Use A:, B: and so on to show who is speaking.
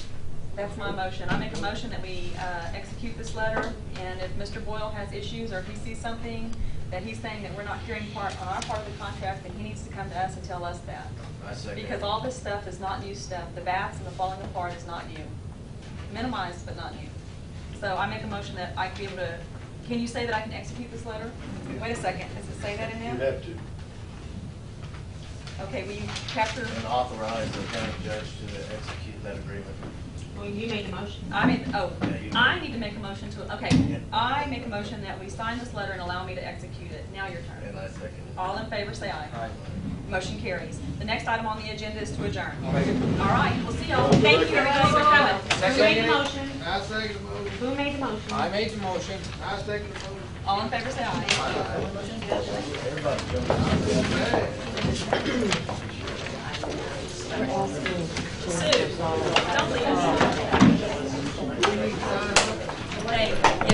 A: That's my motion. I make a motion that we uh, execute this letter, and if Mr. Boyle has issues or if he sees something that he's saying that we're not hearing part, on our part of the contract, then he needs to come to us and tell us that.
B: I second.
A: Because all this stuff is not new stuff. The bats and the falling apart is not new. Minimized, but not new. So I make a motion that I be able to, can you say that I can execute this letter? Wait a second, does it say that in there?
C: You have to.
A: Okay, will you capture?
B: And authorize the county judge to execute that agreement.
D: Well, you made a motion.
A: I mean, oh,
B: Yeah, you-
A: I need to make a motion to, okay, I make a motion that we sign this letter and allow me to execute it. Now your
B: And
A: turn.
B: I second. it.
A: All in favor, say aye.
E: Aye.
A: Motion carries. The next item on the agenda is to adjourn. All
E: Make it.
A: right, we'll see y'all. Thank you, everybody, for coming.
D: Who made the motion?
C: I second the motion.
D: Who made the motion?
E: I made the motion.
C: I second the motion.
A: All in favor, say aye.
B: Everybody jump in.
A: Sue, don't leave us.